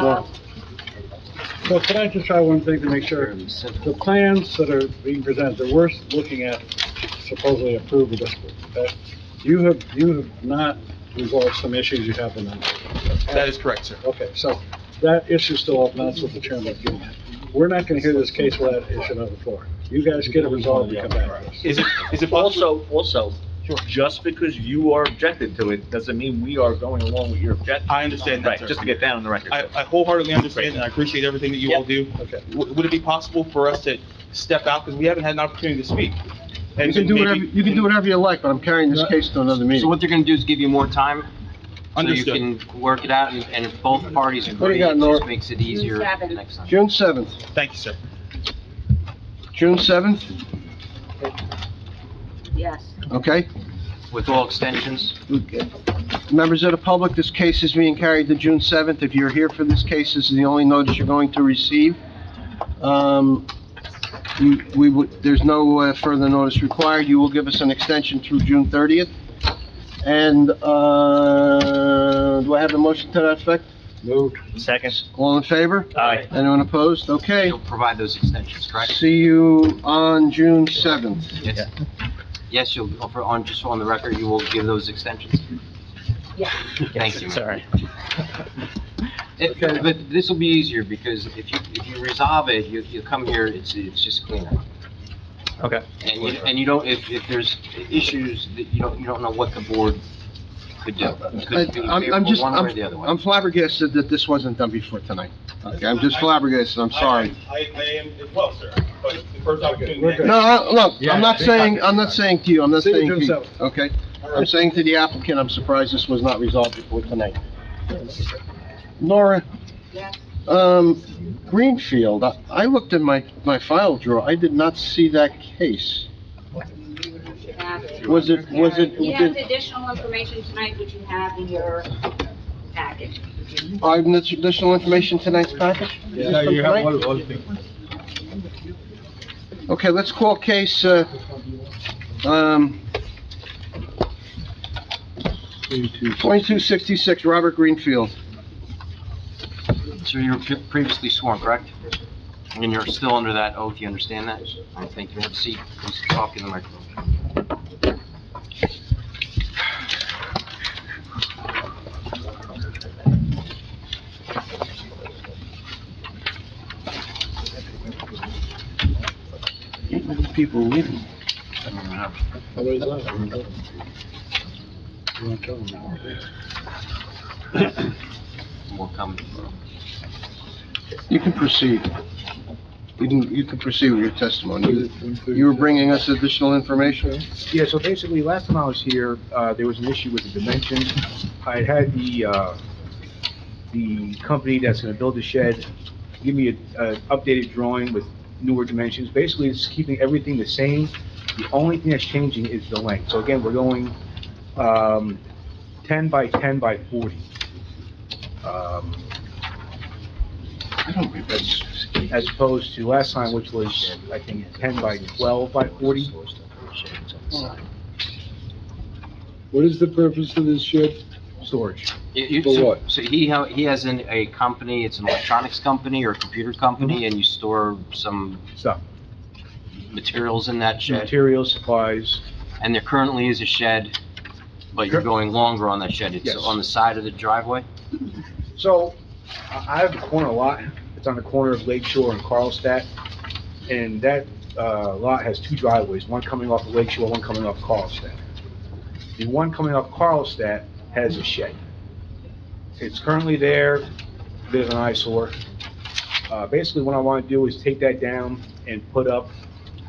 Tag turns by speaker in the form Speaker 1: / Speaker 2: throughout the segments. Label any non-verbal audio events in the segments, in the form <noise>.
Speaker 1: Well-
Speaker 2: So can I just try one thing to make sure? The plans that are being presented, that we're looking at supposedly approved of this, that you have, you have not resolved some issues you have in them.
Speaker 3: That is correct, sir.
Speaker 2: Okay, so that issue's still up, and that's what the chairman was getting at. We're not gonna hear this case without that issue on the floor. You guys get it resolved and come back to us.
Speaker 3: Is it, is it possible?
Speaker 4: Also, also, just because you are objected to it, doesn't mean we are going along with your objection.
Speaker 3: I understand that,
Speaker 4: Right,
Speaker 3: sir.
Speaker 4: just to get down on the record.
Speaker 3: I, I wholeheartedly understand and I appreciate everything that you all do.
Speaker 2: Okay.
Speaker 3: W- Would it be possible for us to step out, because we haven't had an opportunity to speak?
Speaker 5: You can do whatever, you can do whatever you like, but I'm carrying this case to another
Speaker 6: So
Speaker 5: meeting.
Speaker 6: what they're gonna do is give you more time? So
Speaker 3: Understood.
Speaker 6: you can work it out, and and if both parties
Speaker 5: What do
Speaker 6: agree,
Speaker 5: you got,
Speaker 6: it
Speaker 5: Nora?
Speaker 6: just makes it easier
Speaker 1: seven.
Speaker 6: next time.
Speaker 5: June seventh,
Speaker 3: Thank you, sir.
Speaker 5: June seventh,
Speaker 1: Yes.
Speaker 5: okay?
Speaker 6: With all extensions?
Speaker 5: Members of the public, this case is being carried to June seventh. If you're here for this case, this is the only notice you're going to receive. Um, you, we would, there's no uh, further notice required. You will give us an extension through June thirtieth. And, uh, do I have a motion to that effect?
Speaker 2: Moved.
Speaker 4: Second.
Speaker 5: All in favor?
Speaker 4: Aye.
Speaker 5: Anyone opposed? Okay.
Speaker 6: You'll provide those extensions, correct?
Speaker 5: See you on June seventh.
Speaker 6: Yes. Yes, you'll, for- on, just on the record, you will give those extensions?
Speaker 1: Yeah.
Speaker 6: Thank you. <laughs> Sorry. But this will be easier, because if you, if you resolve it, you, you come here, it's, it's just cleaner.
Speaker 3: Okay.
Speaker 6: And you, and you don't, if, if there's issues, that you don't, you don't know what the board could do. It could be
Speaker 5: I- I'm,
Speaker 6: favorable
Speaker 5: I'm just,
Speaker 6: One way or
Speaker 5: I'm
Speaker 6: the other way.
Speaker 5: I'm flabbergasted that this wasn't done before tonight. Okay, I'm just flabbergasted, I'm sorry.
Speaker 3: I, I am as well, sir, but the first
Speaker 2: We're good.
Speaker 5: No, I- look, I'm not saying, I'm not saying to you, I'm not
Speaker 2: See you
Speaker 5: saying
Speaker 2: June
Speaker 5: to you,
Speaker 2: 7th.
Speaker 5: okay? I'm saying to the applicant, I'm surprised this was not resolved before tonight. Nora,
Speaker 1: Yes.
Speaker 5: um, Greenfield, I- I looked in my, my file drawer, I did not see that case. Was it, was it,
Speaker 1: You have
Speaker 5: did-
Speaker 1: additional information tonight, which you have in your package.
Speaker 5: I have additional information tonight's package? Is this from tonight? Okay, let's call case, uh, um, 2266, Robert Greenfield.
Speaker 6: So you were pre- previously sworn, correct? And you're still under that oath, you understand that? I think you have a seat, please talk in the microphone.
Speaker 5: People leaving.
Speaker 2: Otherwise, I don't know. You wanna tell them now?
Speaker 6: More coming.
Speaker 5: You can proceed. You can, you can proceed with your testimony. You were bringing us additional information?
Speaker 7: Yeah, so basically, last time I was here, uh, there was an issue with the dimensions. I had the, uh, the company that's gonna build the shed give me a, a updated drawing with newer dimensions. Basically, it's keeping everything the same. The only thing that's changing is the length. So again, we're going, um, ten by ten by forty. Um,
Speaker 5: I don't think that's...
Speaker 7: as opposed to last time, which was, I think, ten by twelve by forty.
Speaker 2: What is the purpose of this shed?
Speaker 7: Storage.
Speaker 6: You- you-
Speaker 2: For
Speaker 6: so-
Speaker 2: what?
Speaker 6: So he, ha- he has an, a company, it's an electronics company or a computer
Speaker 7: Mm-hmm.
Speaker 6: company, and you store some
Speaker 7: Stuff.
Speaker 6: materials in that shed?
Speaker 7: Materials, supplies,
Speaker 6: And there currently is a shed, but you're going longer on that shed. It's
Speaker 7: Yes.
Speaker 6: on the side of the driveway?
Speaker 7: So, I I have a corner lot, it's on the corner of Lake Shore and Carlstadt, and that, uh, lot has two driveways, one coming off of Lake Shore, one coming off Carlstadt. The one coming off Carlstadt has a shed. It's currently there, bit of an eyesore. Uh, basically, what I wanna do is take that down and put up,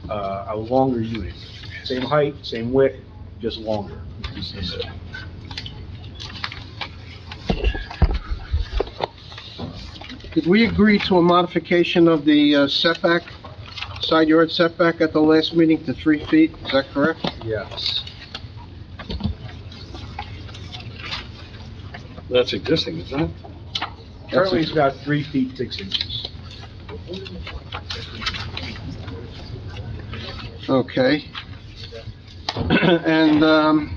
Speaker 7: uh, a longer unit. Same height, same width, just longer.
Speaker 5: Did we agree to a modification of the uh, setback, side yard setback at the last meeting to three feet? Is that correct?
Speaker 7: Yes.
Speaker 2: That's existing, isn't it?
Speaker 7: Currently, it's about three feet, six inches.
Speaker 5: Okay. <clears throat> And, um,